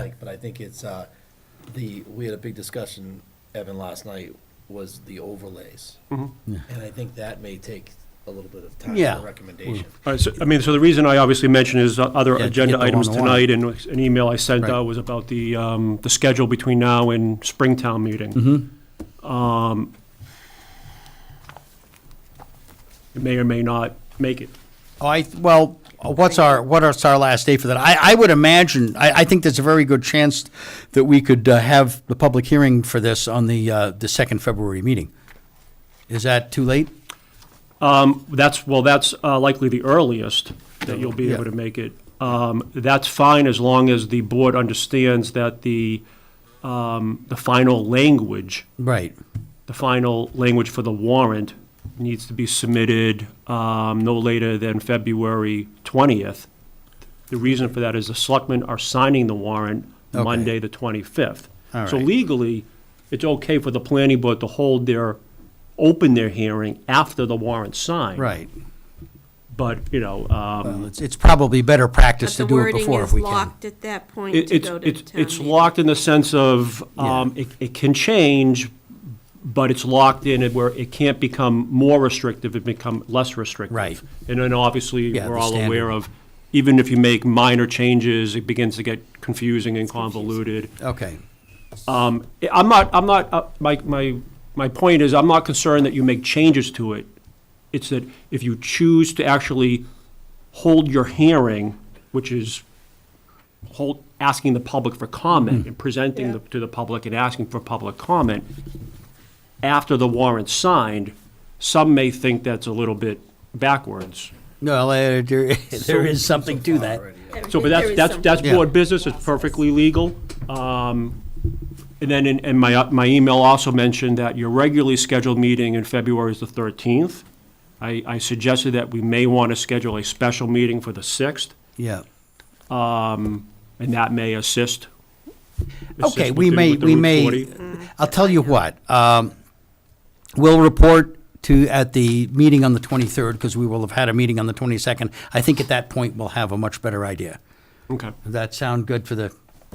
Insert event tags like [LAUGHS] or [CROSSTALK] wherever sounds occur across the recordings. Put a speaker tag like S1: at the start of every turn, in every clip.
S1: I think it's, uh, the, we had a big discussion, Evan, last night, was the overlays. And I think that may take a little bit of time
S2: Yeah.
S1: for recommendation.
S3: All right, so, I mean, so the reason I obviously mentioned is uh, other
S2: Yeah, to get
S3: agenda
S2: the
S3: items
S2: one-on-one.
S3: tonight, and an email I sent
S2: Right.
S3: out was about the, um, the schedule between now and Springtown meeting.
S2: Mm-hmm.
S3: Um, It may or may not make it.
S2: Oh, I, well, what's our, what is our last day for that? I, I would imagine, I, I think there's a very good chance that we could uh, have the public hearing for this on the, uh, the second February meeting. Is that too late?
S3: That's, well, that's uh, likely the earliest that you'll be
S2: Yeah.
S3: able to make it. Um, That's fine as long as the board understands that the, um, the final language,
S2: Right.
S3: the final language for the warrant needs to be submitted um, no later than February 20th. The reason for that is the selectmen are signing the warrant
S2: Okay.
S3: Monday, the 25th.
S2: All
S3: So
S2: right.
S3: legally, it's okay for the planning board to hold their, open their hearing after the warrant's signed.
S2: Right.
S3: But, you know, um,
S2: Well, it's, it's probably better practice
S4: But
S2: to
S4: the
S2: do it
S4: wording
S2: before if
S4: is
S2: we can.
S4: locked at that point
S3: it-
S4: to
S3: it's,
S4: go to
S3: it's,
S4: town
S3: it's
S4: meeting.
S3: locked in the sense of, um, it, it can change, but it's locked in it where it can't become more restrictive, it become less restrictive.
S2: Right.
S3: And then obviously,
S2: Yeah,
S3: we're
S2: the
S3: all
S2: standard.
S3: aware of, even if you make minor changes, it begins to get confusing and convoluted.
S2: Okay.
S3: Um, I- I'm not, I'm not, uh, my, my, my point is, I'm not concerned that you make changes to it. It's that if you choose to actually hold your hearing, which is hold, asking the public for comment and presenting the- to the public and asking for public comment, after the warrant's signed, some may think that's a little bit backwards.
S2: No, there, [LAUGHS] there is something to that.
S1: uh,
S3: So, but
S4: There
S3: that's,
S4: is
S3: that's,
S4: some-
S3: that's
S2: Yeah.
S3: board business, it's perfectly legal. Um, And then, in- and my, my email also mentioned that your regularly scheduled meeting in February is the 13th. I, I suggested that we may want to schedule a special meeting for the 6th,
S2: Yeah.
S3: and that may assist. assist
S2: Okay,
S3: with
S2: we
S3: the-
S2: may,
S3: with the
S2: we
S3: Route
S2: may,
S3: 40.
S2: I'll tell you what, um, we'll report to, at the meeting on the 23rd, because we will have had a meeting on the 22nd. I think at that point, we'll have a much better idea.
S3: Okay.
S2: Does that sound good for the,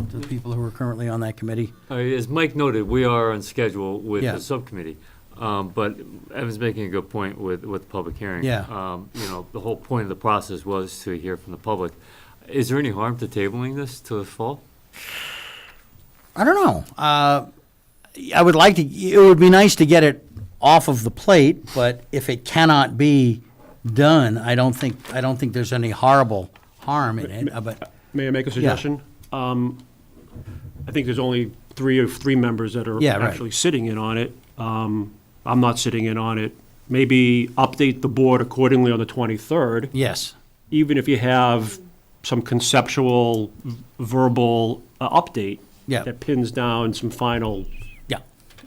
S2: to the people who are currently on that committee?
S5: Uh, As Mike noted, we are on schedule with
S2: Yeah.
S5: the subcommittee, um, but Evan's making a good point with, with the public hearing.
S2: Yeah.
S5: Um, You know, the whole point of the process was to hear from the public. Is there any harm to tabling this to the fall?
S2: I don't know. Uh, I would like to, it would be nice to get it off of the plate, but if it cannot be done, I don't think, I don't think there's any horrible harm in it, uh, but,
S3: May I make a suggestion? Um, I think there's only three of three members that are
S2: Yeah, right.
S3: actually sitting in on it. Um, I'm not sitting in on it. Maybe update the board accordingly on the 23rd.
S2: yes.
S3: even if you have some conceptual v- verbal uh, update
S2: Yeah.
S3: that pins down some final,
S2: Yeah.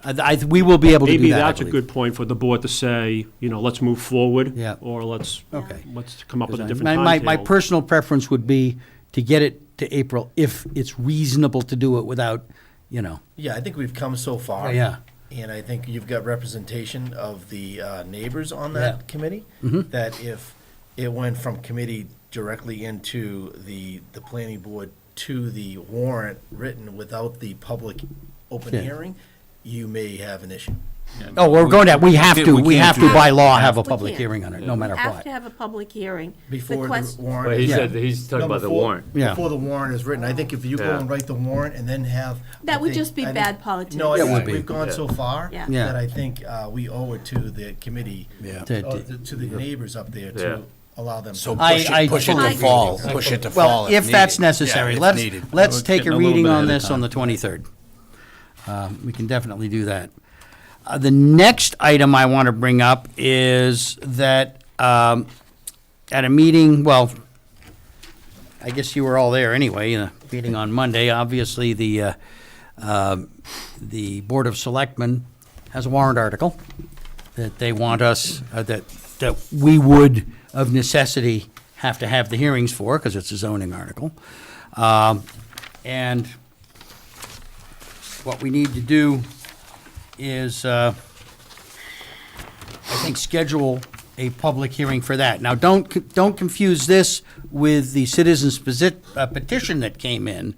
S2: I, I, we will be able to do that.
S3: maybe
S2: I
S3: that's a
S2: believe.
S3: good point for the board to say, you know, let's move forward.
S2: Yeah.
S3: Or let's,
S2: Okay.
S3: let's come up with a different
S2: My, my, my
S3: timetable.
S2: personal preference would be to get it to April if it's reasonable to do it without, you know,
S1: Yeah, I think we've come so far.
S2: Oh, yeah.
S1: And I think you've got representation of the uh, neighbors on
S2: Yeah. Mm-hmm.
S1: that committee. That if it went from committee directly into the, the planning board to the warrant written without the public open
S2: Yeah.
S1: hearing, you may have an issue.
S2: oh, we're going to, we have
S6: We
S2: to,
S6: can't- we
S2: we
S6: can't
S2: have to
S6: do
S2: by law have a
S4: We
S2: public
S4: can't.
S2: hearing on it, no
S4: We
S2: matter
S4: have
S2: what.
S4: to have a public hearing.
S1: Before the
S4: quest-
S1: warrant.
S5: But he
S1: is-
S5: said, he's talking
S1: No,
S5: about the
S1: before-
S5: warrant.
S2: Yeah.
S1: Before the warrant is written, I think if you go
S5: Yeah.
S1: and write the warrant and then have. I
S4: That would
S1: think-
S4: just be
S1: I think-
S4: bad politics.
S1: No, I
S4: It
S1: think
S2: would be.
S1: we've gone so far
S4: Yeah.
S2: Yeah.
S1: that I think uh, we owe it to the committee.
S6: Yeah.
S2: To-
S1: uh, To the neighbors up there
S5: Yeah.
S1: to allow them.
S6: So
S1: to-
S2: I-
S6: push
S2: I
S6: it, push it
S4: fully
S6: to
S4: agree.
S6: fall, push it to fall
S2: Well,
S6: if
S2: if that's
S6: needed.
S2: necessary,
S6: Yeah, if
S2: let's,
S6: needed.
S2: let's
S6: We're
S2: take
S6: getting
S2: a
S6: little
S2: reading
S6: bit
S2: on
S6: ahead of
S2: this on
S6: time.
S2: the 23rd. Um, We can definitely do that. Uh, The next item I want to bring up is that um, at a meeting, well, I guess you were all there anyway, uh, meeting on Monday, obviously, the, uh, um, the Board of Selectmen has a warrant article that they want us, uh, that, that we would of necessity have to have the hearings for, because it's a zoning article. Um, And what we need to do is, uh, I think, schedule a public hearing for that. Now, don't, c- don't confuse this with the citizens posi- uh, petition that came in,